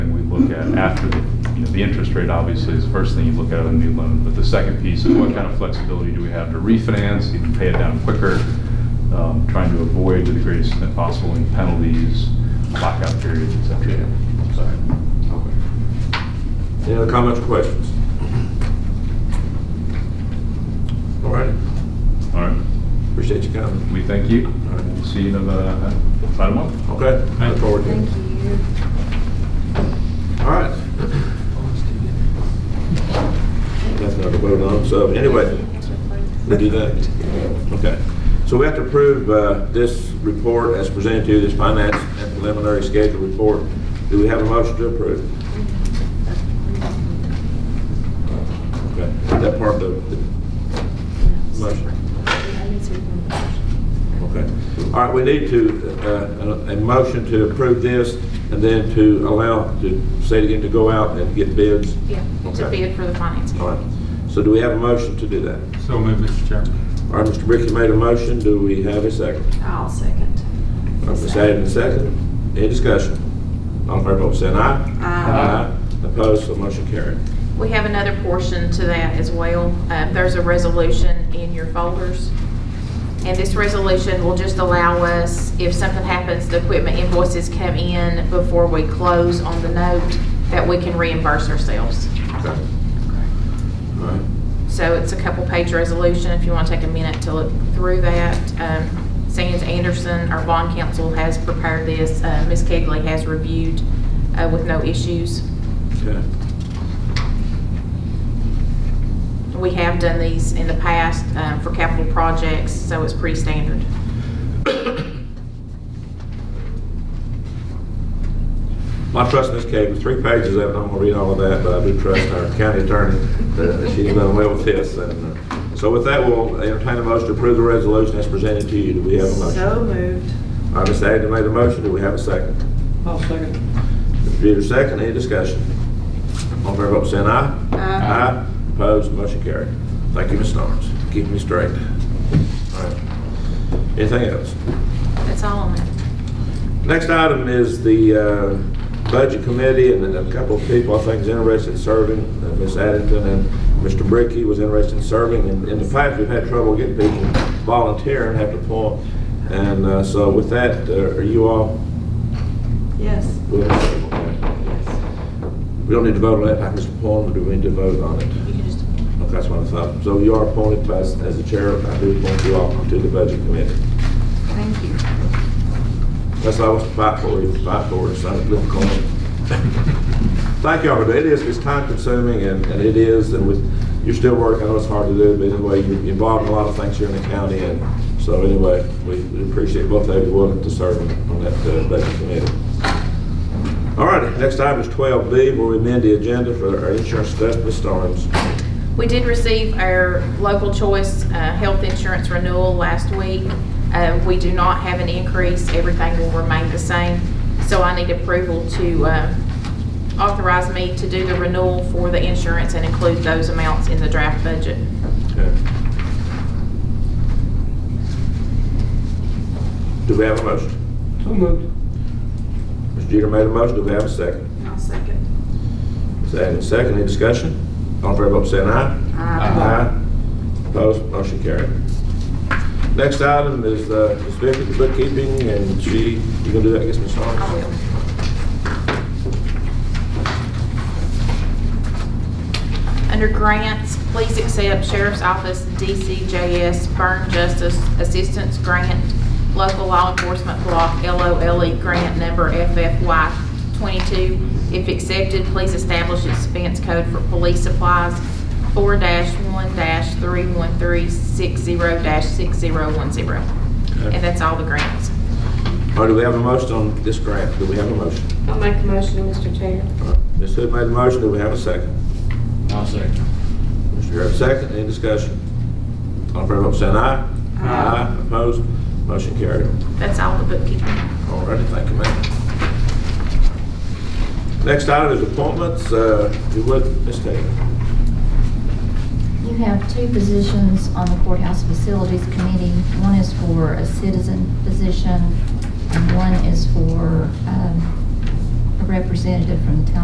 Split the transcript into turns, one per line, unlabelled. look at after, the you know, the interest rate obviously is the first thing you look at on a new loan. But the second piece is what kind of flexibility do we have to refinance, even pay it down quicker, um, trying to avoid to the greatest extent possible any penalties, lockout periods, et cetera. So-
Any other comments or questions? All right,
All right,
appreciate your comment.
we thank you.
All right.
We'll see you in about about a month.
Okay, look forward to it.
Thank you.
All right. Nothing to vote on, so anyway, we do that. Okay. So we have to approve uh, this report as presented to you, this finance and preliminary schedule report. Do we have a motion to approve? Okay, Is that part of the- the Motion.
I need to remove the motion.
Okay. All right, we need to, uh, a a motion to approve this, and then to allow, to say it again, to go out and get bids.
Yeah, to
Okay.
bid for the finance.
All right. So do we have a motion to do that?
So move, Mr. Chairman.
All right, Mr. Bricky made a motion. Do we have a second?
I'll second.
All right, Ms. Adams, second. Any discussion? All in favor, vote by saying aye.
Aye.
Opposed, so motion carried.
We have another portion to that as well. Um, There's a resolution in your folders. And this resolution will just allow us, if something happens, the equipment invoices come in before we close on the note, that we can reimburse ourselves.
Okay. All right.
So it's a couple-page resolution, if you want to take a minute to look through that. Um, Sands Anderson, our bond counsel, has prepared this. Uh, Ms. Kegley has reviewed uh, with no issues.
Okay.
We have done these in the past um, for capital projects, so it's pretty standard.
My trust in this case, with three pages of it, I'm gonna read all of that, but I do trust our county attorney that she's done well with this. And uh, So with that, we'll entertain a motion to approve the resolution as presented to you. Do we have a motion?
So moved.
All right, Ms. Agnew made a motion. Do we have a second?
I'll second.
Mr. Jeter, second. Any discussion? All in favor, vote by saying aye. Aye. Opposed, motion carried. Thank you, Ms. Starnes. Keep me straight. All right. Anything else?
That's all on that.
Next item is the uh, Budget Committee, and then a couple of people I think is interested in serving, uh, Ms. Addington and Mr. Bricky was interested in serving. And In the past, we've had trouble getting people volunteering at the point, and uh, so with that, uh, are you all
Yes.
willing? to-
Yes.
We don't need to vote on that, I can just appoint, do we need to vote on it?
You can just,
Okay, That's what I thought. So you are appointed by- as the chair, I do appoint you all to the Budget Committee.
thank you.
That's why I was fight for it, fight for it, so I'm looking for it. Thank y'all for that. It is, it's time consuming and, and it is, and with, you're still working, I know it's hard to do, but anyway, you're involved in a lot of things here in the county. And so anyway, we we appreciate both of you willing to serve on that, uh, budget committee. All right, next item is twelve B, where we amend the agenda for our insurance stuff, Ms. Starnes.
We did receive our local choice uh, health insurance renewal last week. Uh, We do not have an increase, everything will remain the same. So I need approval to uh, authorize me to do the renewal for the insurance and include those amounts in the draft budget.
Okay. Do we have a motion?
So moved.
Mr. Jeter made a motion, do we have a second?
I'll second.
Ms. Atkins, second, any discussion? All in favor, vote by saying aye. Aye. Opposed, motion carried. Next item is uh, Ms. Vicky, the bookkeeping, and she, you gonna do that, I guess, Ms. Harms?
I will. Under grants, please accept Sheriff's Office DCJS Burn Justice Assistance Grant, Local Law Enforcement Block LOLE E, Grant Number FFY 22. If accepted, please establish expense code for police supplies 4-1-31360-6010. And
Okay.
that's all the grants.
All right, do we have a motion on this grant? Do we have a motion?
I'll make a motion, Mr. Chair.
All right, Ms. Hood made a motion, do we have a second?
I'll second.
Mr. Garrett, second, any discussion? All in favor, vote by saying aye. Aye. Opposed, motion carried.
That's all the bookkeeping.
All righty, thank you, ma'am. Next item is appointments, uh, you would, Ms. Taylor.
You have two positions on the courthouse facilities committee. One is for a citizen position, and one is for um, a representative from the town